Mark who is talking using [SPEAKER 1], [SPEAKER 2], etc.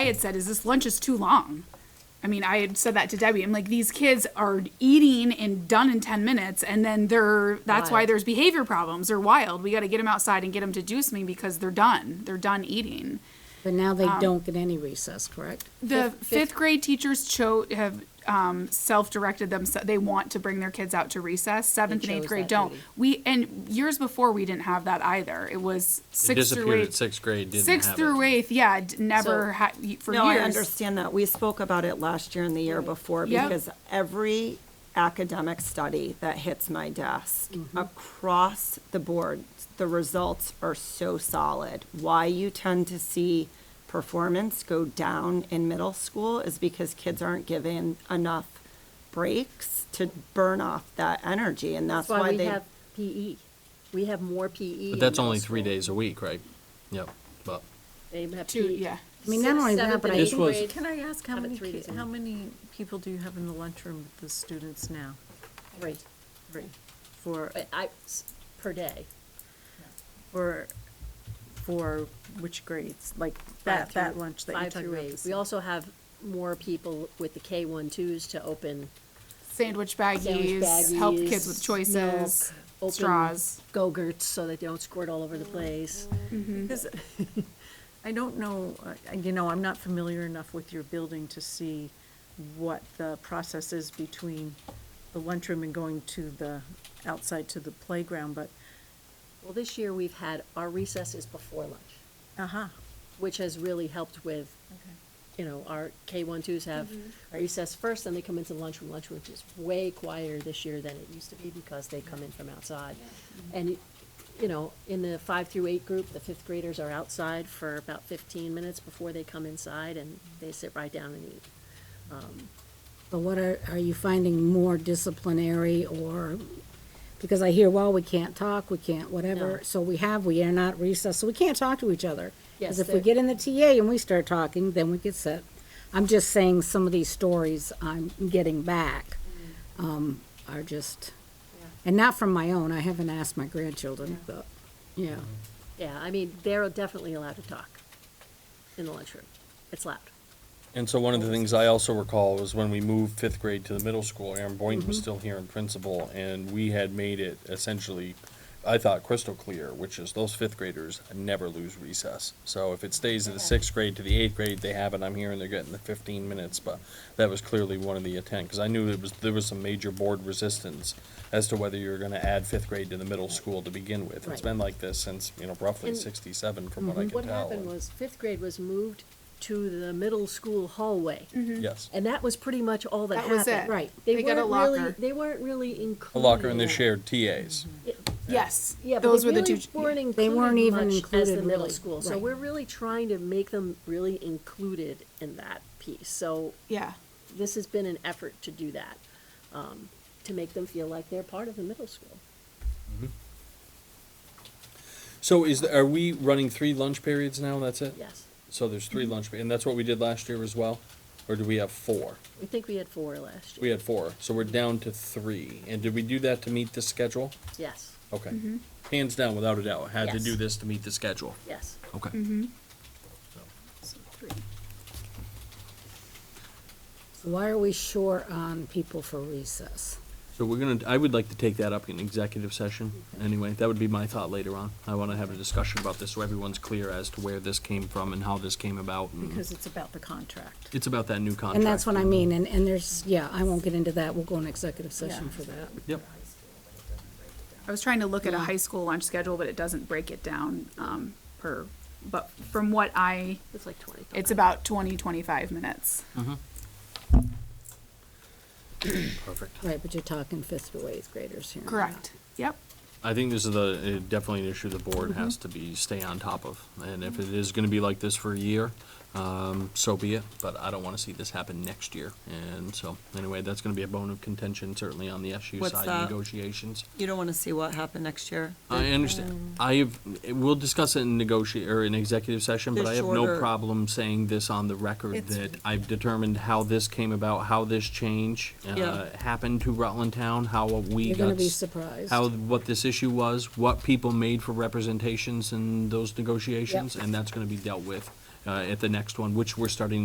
[SPEAKER 1] I had said is this lunch is too long. I mean, I had said that to Debbie. I'm like, these kids are eating and done in 10 minutes, and then they're that's why
[SPEAKER 2] Wild.
[SPEAKER 1] there's behavior problems. They're wild. We got to get them outside and get them to do something because they're done. They're done eating.
[SPEAKER 2] But now they don't get any recess, correct?
[SPEAKER 1] The fifth, grade teachers cho- have um, self-directed themselves. They want to bring their kids out to recess. Seventh and
[SPEAKER 2] chose
[SPEAKER 1] eighth grade
[SPEAKER 2] that
[SPEAKER 1] don't.
[SPEAKER 2] duty.
[SPEAKER 1] We and years before we didn't have that either. It was
[SPEAKER 3] It
[SPEAKER 1] sixth through
[SPEAKER 3] disappeared at
[SPEAKER 1] eighth.
[SPEAKER 3] sixth grade, didn't
[SPEAKER 1] Sixth
[SPEAKER 3] have it.
[SPEAKER 1] through eighth, yeah, d- never
[SPEAKER 2] So-
[SPEAKER 1] had for
[SPEAKER 4] No, I
[SPEAKER 1] years.
[SPEAKER 4] understand that. We spoke about it last year and the year before
[SPEAKER 1] Yep.
[SPEAKER 4] because every academic study that hits my desk
[SPEAKER 2] Mm-hmm.
[SPEAKER 4] across the board, the results are so solid. Why you tend to see performance go down in middle school is because kids aren't given enough breaks to burn off that energy and that's
[SPEAKER 2] That's why
[SPEAKER 4] why
[SPEAKER 2] we
[SPEAKER 4] they.
[SPEAKER 2] have PE. We have more PE.
[SPEAKER 3] But
[SPEAKER 2] in
[SPEAKER 3] that's
[SPEAKER 2] middle
[SPEAKER 3] only three
[SPEAKER 2] school.
[SPEAKER 3] days a week, right? Yep, but
[SPEAKER 2] They have E.
[SPEAKER 1] Two,
[SPEAKER 2] PE.
[SPEAKER 1] yeah.
[SPEAKER 2] I mean, not only that,
[SPEAKER 5] Seventh
[SPEAKER 2] but
[SPEAKER 5] and
[SPEAKER 2] I
[SPEAKER 3] This
[SPEAKER 5] eighth
[SPEAKER 2] think
[SPEAKER 3] was-
[SPEAKER 5] grade, Can I ask how
[SPEAKER 2] have it
[SPEAKER 5] many,
[SPEAKER 2] three
[SPEAKER 5] ki-
[SPEAKER 2] days a
[SPEAKER 5] how
[SPEAKER 2] week.
[SPEAKER 5] many people do you have in the lunchroom with the students now?
[SPEAKER 2] three,
[SPEAKER 5] Three. For,
[SPEAKER 2] but I, s- per day.
[SPEAKER 5] for, for which grades? Like
[SPEAKER 2] five
[SPEAKER 5] that,
[SPEAKER 2] through-
[SPEAKER 5] that lunch that you're
[SPEAKER 2] five
[SPEAKER 5] talking
[SPEAKER 2] through
[SPEAKER 5] about?
[SPEAKER 2] eight.
[SPEAKER 5] this-
[SPEAKER 2] We also have more people with the K one twos to open
[SPEAKER 1] Sandwich
[SPEAKER 2] sandwich
[SPEAKER 1] baggies,
[SPEAKER 2] baggies.
[SPEAKER 1] help kids with choices,
[SPEAKER 2] milk, open
[SPEAKER 1] straws.
[SPEAKER 2] Go-gurts so that they don't squirt all over the place.
[SPEAKER 5] Because I don't know, uh, you know, I'm not familiar enough with your building to see what the process is between the lunchroom and going to the, outside to the playground, but,
[SPEAKER 2] Well, this year we've had, our recess is before lunch,
[SPEAKER 5] uh-huh.
[SPEAKER 2] which has really helped with, you know, our K one twos have recess first, then they come into lunchroom. Lunchroom is way quieter this year than it used to be because they come in from outside. And, you know, in the five through eight group, the fifth graders are outside for about fifteen minutes before they come inside and they sit right down and eat.
[SPEAKER 6] But what are, are you finding more disciplinary or, because I hear, well, we can't talk, we can't
[SPEAKER 2] No.
[SPEAKER 6] whatever, so we have, we are not recessed, so we can't talk to each other.
[SPEAKER 2] Yes,
[SPEAKER 6] Because if we
[SPEAKER 2] there-
[SPEAKER 6] get in the TA and we start talking, then we get set. I'm just saying some of these stories I'm getting back, um, are just, and not from my own, I haven't asked my grandchildren, but, yeah.
[SPEAKER 2] Yeah, I mean, they're definitely allowed to talk in the lunchroom. It's loud.
[SPEAKER 3] And so one of the things I also recall was when we moved fifth grade to the middle school, Aaron Boynton
[SPEAKER 2] Mm-hmm.
[SPEAKER 3] was still here in principal, and we had made it essentially, I thought crystal clear, which is those fifth graders never lose recess. So if it stays at the sixth grade to the eighth grade, they have it, I'm here and they're getting the fifteen minutes, but that was clearly one of the intent, because I knew it was, there was some major board resistance as to whether you were gonna add fifth grade to the middle school to begin with. It's
[SPEAKER 2] Right.
[SPEAKER 3] been like this since, you know, roughly
[SPEAKER 2] And- Mm-hmm.
[SPEAKER 3] sixty-seven from what I can tell.
[SPEAKER 2] What happened
[SPEAKER 3] and-
[SPEAKER 2] was fifth grade was moved to the middle school hallway.
[SPEAKER 3] Mm-hmm. Yes.
[SPEAKER 2] And that was pretty much all that
[SPEAKER 1] Mm. That
[SPEAKER 2] happened.
[SPEAKER 1] was it.
[SPEAKER 6] Right.
[SPEAKER 2] They
[SPEAKER 1] They got a
[SPEAKER 2] weren't really,
[SPEAKER 1] locker.
[SPEAKER 2] they weren't really
[SPEAKER 3] A
[SPEAKER 2] included.
[SPEAKER 3] locker and
[SPEAKER 2] in
[SPEAKER 3] they
[SPEAKER 2] that.
[SPEAKER 3] shared
[SPEAKER 2] Mm-hmm.
[SPEAKER 3] TAs.
[SPEAKER 1] Yes,
[SPEAKER 2] Yeah, but
[SPEAKER 1] those
[SPEAKER 2] they
[SPEAKER 1] were the
[SPEAKER 2] really
[SPEAKER 1] two.
[SPEAKER 2] Weren't included
[SPEAKER 6] They weren't even
[SPEAKER 2] much
[SPEAKER 6] included
[SPEAKER 2] as the middle
[SPEAKER 6] really,
[SPEAKER 2] school. So
[SPEAKER 6] right.
[SPEAKER 2] we're really trying to make them really included in that piece. So
[SPEAKER 1] yeah.
[SPEAKER 2] this has been an effort to do that, um, to make them feel like they're part of the middle school.
[SPEAKER 3] So is, the- are we running three lunch periods now, that's it?
[SPEAKER 2] Yes.
[SPEAKER 3] So there's three
[SPEAKER 6] Mm-hmm.
[SPEAKER 3] lunch, pe- and that's what we did last year as well? Or do we have four?
[SPEAKER 2] I think we had four last year.
[SPEAKER 3] We had four, so we're down to three. And did we do that to meet the schedule?
[SPEAKER 2] Yes,
[SPEAKER 3] Okay.
[SPEAKER 6] Mm-hmm.
[SPEAKER 3] Hands down, without a doubt, had to
[SPEAKER 2] Yes.
[SPEAKER 3] do this to meet the schedule.
[SPEAKER 2] yes.
[SPEAKER 3] Okay.
[SPEAKER 6] Mm-hmm.
[SPEAKER 1] So three.
[SPEAKER 6] Why are we short on people for recess?
[SPEAKER 3] So we're gonna, I would like to take that up in executive session,
[SPEAKER 6] Mm-hmm.
[SPEAKER 3] anyway, that would be my thought later on. I wanna have a discussion about this, so everyone's clear as to where this came from and how this came about. and
[SPEAKER 5] Because it's about the contract.
[SPEAKER 3] It's about that new contract.
[SPEAKER 6] And that's what I mean, and, and there's, yeah, I won't get into that, we'll go in executive session
[SPEAKER 5] Yeah.
[SPEAKER 6] for that.
[SPEAKER 3] Yep.
[SPEAKER 1] I was trying to look at a high school lunch schedule, but it doesn't break it down um, per. But from what I,
[SPEAKER 2] It's like twenty.
[SPEAKER 1] it's about 20, 25 minutes.
[SPEAKER 3] Perfect.
[SPEAKER 6] Right, but you're talking fifth to eighth graders here.
[SPEAKER 1] Correct. Yep.
[SPEAKER 3] I think this is the, uh, definitely an issue the board
[SPEAKER 4] Mm-hmm.
[SPEAKER 3] has to be, stay on top of. And if it is gonna be like this for a year, um, so be it, but I don't wanna see this happen next year. And so, anyway, that's gonna be a bone of contention certainly on the SU
[SPEAKER 4] What's
[SPEAKER 3] side
[SPEAKER 4] that?
[SPEAKER 3] negotiations.
[SPEAKER 4] You don't want to see what happened next year?
[SPEAKER 3] I
[SPEAKER 4] um,
[SPEAKER 3] understand. I have, we'll discuss it in negotia, or in executive session, but
[SPEAKER 4] The
[SPEAKER 3] I have no
[SPEAKER 4] shorter-
[SPEAKER 3] problem saying this on the record
[SPEAKER 4] It's-
[SPEAKER 3] that I've determined how this came about, how this change, uh,
[SPEAKER 4] Yeah.
[SPEAKER 3] happened to Rutland Town, how we got.
[SPEAKER 6] You're gonna be
[SPEAKER 3] s-
[SPEAKER 6] surprised.
[SPEAKER 3] how, what this issue was, what people made for representations in those negotiations, and that's gonna be dealt with uh, at the next one, which we're starting